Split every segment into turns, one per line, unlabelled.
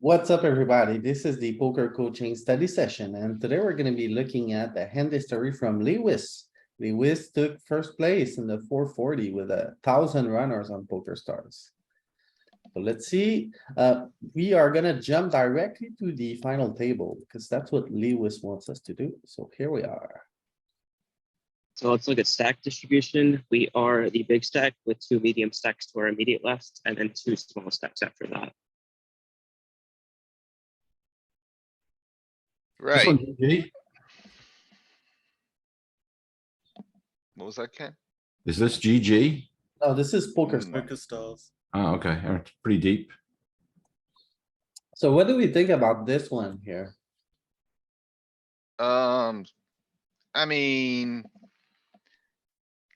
What's up, everybody? This is the poker coaching study session, and today we're gonna be looking at the hand history from Lewis. Lewis took first place in the four forty with a thousand runners on Poker Stars. So let's see, uh, we are gonna jump directly to the final table, because that's what Lewis wants us to do. So here we are.
So let's look at stack distribution. We are the big stack with two medium stacks to our immediate left and then two small stacks after that.
This
Right,
one, GG.
what was that, Ken?
Is this GG?
No, Oh, this is poker.
Mm.
Stars.
Poker stars.
Oh, okay, all right, pretty deep.
So what do we think about this one here?
Um, I mean.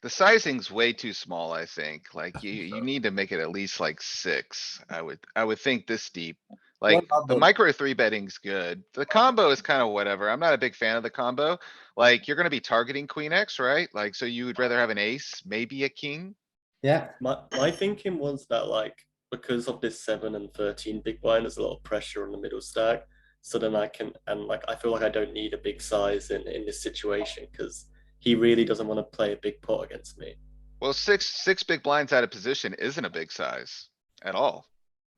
The sizing's way too small, I think. Like you, you need to make it at least like six. I would, I would think this deep. Like
about
the
the-
micro three betting's good. The combo is kind of whatever. I'm not a big fan of the combo. Like you're gonna be targeting queen X, right? Like, so you would rather have an ace, maybe a king?
Yeah,
My my thinking was that like because of this seven and thirteen big blind, there's a lot of pressure on the middle stack. So then I can and like I feel like I don't need a big size in in this situation because he really doesn't want to play a big pot against me.
Well, six, six big blinds out of position isn't a big size at all.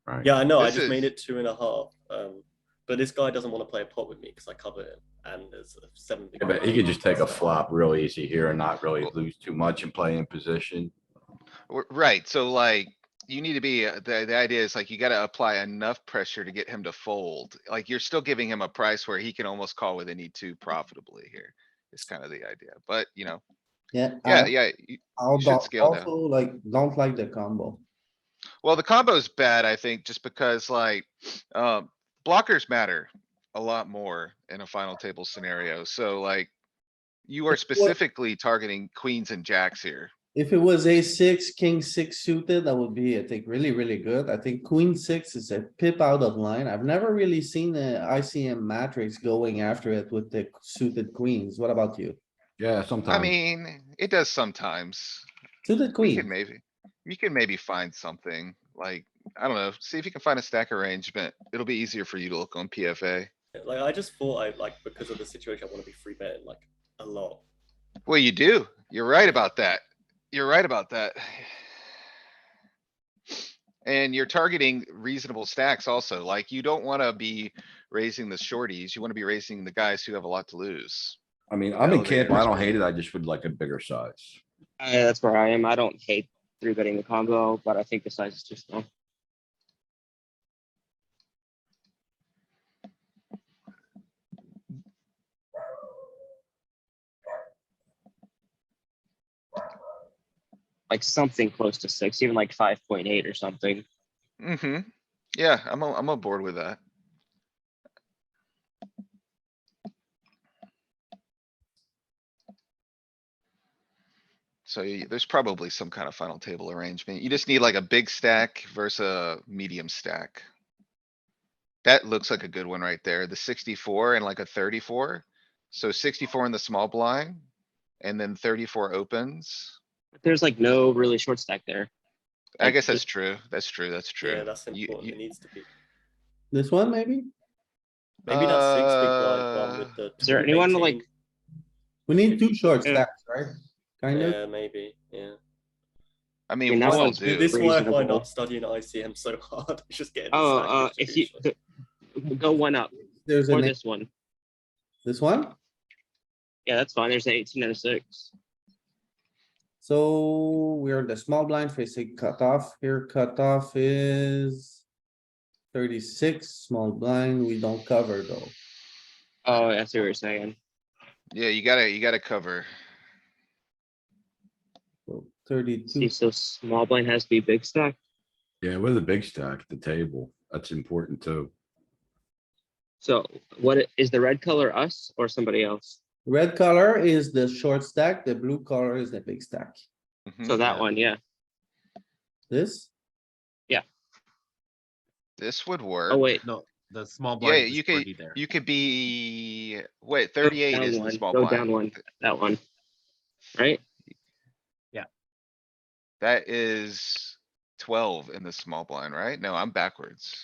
Right,
Yeah, I know. I
This
just made
is-
it two and a half. Um, but this guy doesn't want to play a pot with me because I cover him and there's a seven big.
Yeah, but he could just take a flop real easy here and not really lose too much and play in position.
W- Right, so like, you need to be, uh, the, the idea is like, you gotta apply enough pressure to get him to fold. Like, you're still giving him a price where he can almost call with any two profitably here. It's kind of the idea, but you know,
yeah.
yeah,
I-
yeah. you-
I'll
should
do-
scale down.
also like, don't like the combo.
Well, the combo's bad, I think, just because like, um, blockers matter a lot more in a final table scenario, so like. You are
It's what-
specifically targeting queens and jacks here.
If it was a six, king six suited, that would be, I think, really, really good. I think queen six is a pip out of line. I've never really seen the ICM matrix going after it with the suited queens. What about you?
Yeah,
I
sometimes.
mean, it does sometimes.
Suited
We can
queen,
maybe, you can maybe find something, like, I don't know, see if you can find a stack arrangement. It'll be easier for you to look on PFA.
Like I just thought I like because of the situation I want to be free betting like a lot.
Well, you do. You're right about that. You're right about that. And you're targeting reasonable stacks also, like you don't wanna be raising the shorties. You wanna be raising the guys who have a lot to lose.
I mean, I'm in camp, I
elevators.
don't hate it, I just would like a bigger size.
Uh, that's where I am. I don't hate three betting the combo, but I think the size is too small. Like something close to six, even like five point eight or something.
hmm Yeah, I'm, on- I'm on board with that. So y- there's probably some kind of final table arrangement. You just need like a big stack versus a medium stack. That looks like a good one right there. The sixty-four and like a thirty-four. So sixty-four in the small blind and then thirty-four opens.
There's like no really short stack there.
I
Like,
guess that's
just-
true. That's true. That's true.
Yeah, that's
You-
important.
you-
it needs to be.
this one maybe?
Maybe not six big blind one
Uh,
with the.
Is there
two
anyone,
18.
like-
We need two short
Yeah.
stacks, right? Kind of,
Yeah, maybe. Yeah.
I
mean,
mean,
that
one'll
one's-
do.
This is why I find
reasonable.
I'm studying ICM so hard. It's just getting. the
Oh,
stack
uh, if you
distribution.
th- go one up
there's
or
a,
this one.
this one,
Yeah, that's fine. There's an eighteen and a six.
so we're the small blind facing cutoff, here cutoff is thirty-six, small blind, we don't cover though.
Oh, I see what you're saying.
Yeah, you gotta, you gotta cover.
So Thirty-two.
See, so small blind has to be big stack.
Yeah, with a big stack at the table, that's important too.
So what i- is the red color us or somebody else?
Red color is the short stack, the blue color is the big stack.
Mhm.
So that one, yeah.
This,
This would work.
Oh, wait.
No, the small
Yeah,
blind. is
you could-
already there.
You could be, wait, thirty-eight
down
is the
one,
small
go
blind.
down one. That one. Right?
That is twelve in the small blind, right? No, I'm backwards.